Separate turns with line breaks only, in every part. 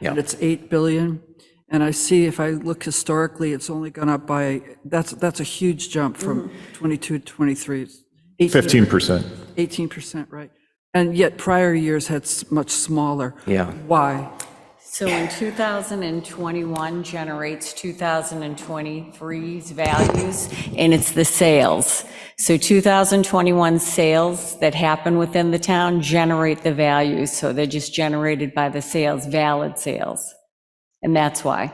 and
Yeah.
it's 8 billion. And I see, if I look historically, it's only gone up by, that's, that's a huge jump from
Mm-hmm.
22 to 23. It's 18
Fifteen percent.
18%, right. And yet prior years had s- much smaller.
Yeah.
Why?
So in 2021 generates 2023's values, and it's the sales. So 2021 sales that happen within the town generate the values, so they're just generated by the sales, valid sales. And that's why.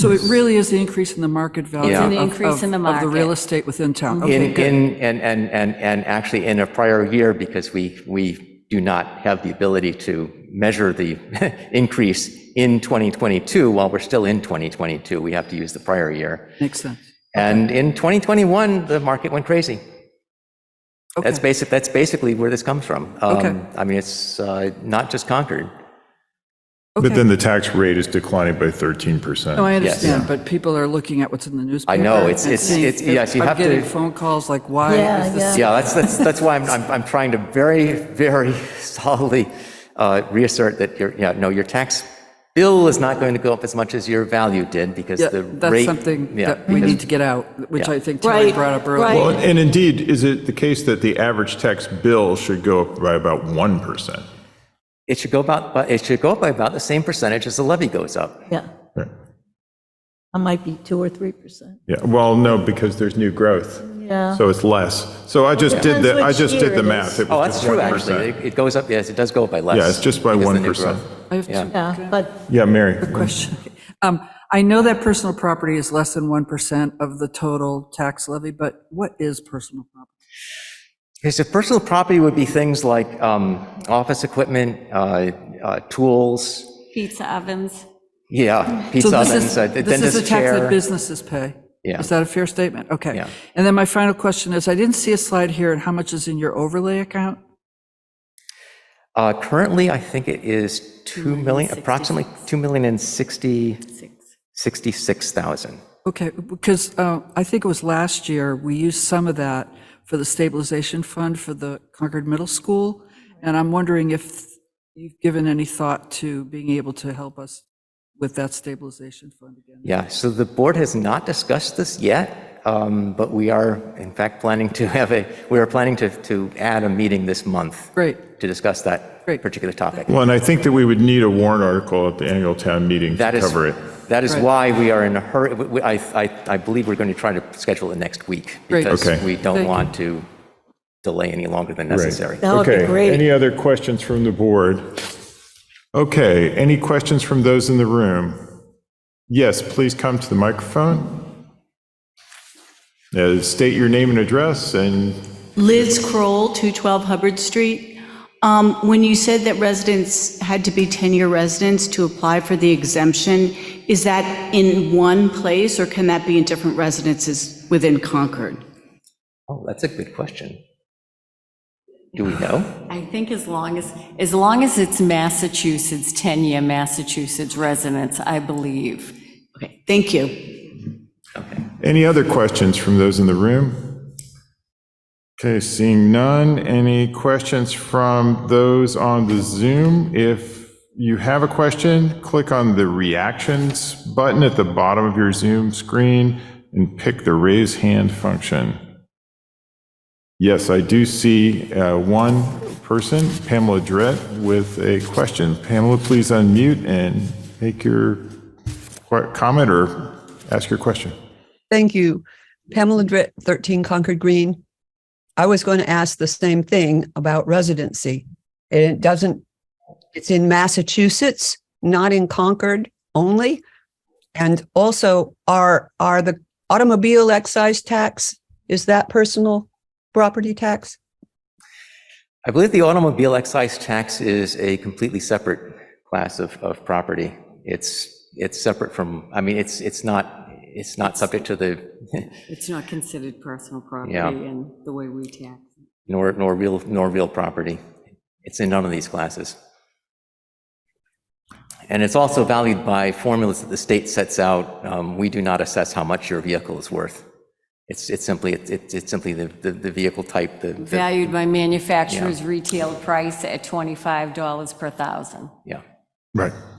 So it really is the increase in the market value.
It's in
the
of-
increase in the
of- Of the real
market.
estate within town. Okay,
In,
good.
in, and, and, and, and actually in a prior year, because we, we do not have the ability to measure the increase in 2022 while we're still in 2022. We have to use the prior year.
Makes sense.
And in 2021, the market went crazy. That's
Okay,
basic, that's basically where this comes from. Um,
Okay.
I mean, it's uh, not just Concord.
But then the tax rate is declining by thirteen percent.
no, Oh, I
Yes.
understand, but people are looking at what's in the newspaper.
I know, it's-
and
it's-
seeing-
it's- yes, you have to-
I'm getting phone calls like, why is this?
Yeah, that's, that's, that's why I'm, I'm, I'm trying to very, very solidly uh, reassert that your, yeah, no, your tax bill is not going to go up as much as your value did because
Yeah,
the
That's
rate.
something
yeah,
that we
because-
need to get out, which
Yeah.
I think Terry
Right,
brought up
right.
earlier.
Well, and indeed, is it the case that the average tax bill should go up by about one percent?
It should go about, but it should go up by about the same percentage as the levy goes up.
Yeah, I might be 2 or 3%.
Yeah, well, no, because there's new growth,
Yeah.
so it's less. So I just did
Depends
the, I
which
just
year
did the
it
math.
is.
It
Oh,
was
that's
just
true,
1%.
actually. It it goes up, yes, it does go up by less.
Yeah, it's just by
because of the new
1%.
growth.
I have two
Yeah, but
Yeah, Mary.
question. Um, I know that personal property is less than 1% of the total tax levy, but what is personal property?
Because if personal property would be things like um, office equipment, uh, uh, tools,
Pizza ovens.
yeah,
So
pizza
this
ovens,
is,
a
this is
dentist
the tax that
chair.
businesses pay.
Yeah.
Is that a fair statement? Okay.
Yeah.
And then my final question is, I didn't see a slide here on how much is in your overlay account?
Uh, Currently, I think it is 2 million, approximately 2 million and 60, 66,000.
Okay, because uh, I think it was last year, we used some of that for the stabilization fund for the Concord Middle School, and I'm wondering if you've given any thought to being able to help us with that stabilization fund again.
Yeah, so the board has not discussed this yet, um, but we are, in fact, planning to have a, we are planning to, to add a meeting this month
Great,
to discuss that
Great.
particular topic.
Well, and I think that we would need a warrant article at the annual town meeting
That
to
is,
cover it.
that is
Right.
why we are in a hurry. We- we- I, I, I believe we're going to try to schedule it next week
Great.
because
Okay.
we don't
Thank you.
want to delay any longer than necessary.
that would be
Okay, any
great.
other questions from the board? Okay, any questions from those in the room? Yes, please come to the microphone. Uh, State your name and address, and
Liz Kroll, 212 Hubbard Street. Um, When you said that residents had to be 10-year residents to apply for the exemption, is that in one place, or can that be in different residences within Concord?
Oh, that's a good question. Do we know?
I think as long as, as long as it's Massachusetts, 10-year Massachusetts residents, I believe.
Okay, thank you.
any other questions from those in the room? Okay, seeing none, any questions from those on the Zoom? If you have a question, click on the reactions button at the bottom of your Zoom screen and pick the raise hand function. Yes, I do see uh, one person, Pamela Drett, with a question. Pamela, please unmute and make your que- comment or ask your question.
Thank you. Pamela Dritt, 13 Concord Green. I was going to ask the same thing about residency. And It doesn't, it's in Massachusetts, not in Concord only. And also, are, are the automobile excise tax, is that personal property tax?
I believe the automobile excise tax is a completely separate class of, of property. It's, it's separate from, I mean, it's, it's not, it's not subject to the,
It's not considered personal property
Yeah.
in the way we tax.
nor, nor real, nor real property. It's in none of these classes. And it's also valued by formulas that the state sets out. Um, We do not assess how much your vehicle is worth. It's, it's simply, it's, it's simply the, the the vehicle type, the, the-
Valued by manufacturer's retail price at $25 per thousand.
yeah.
Right.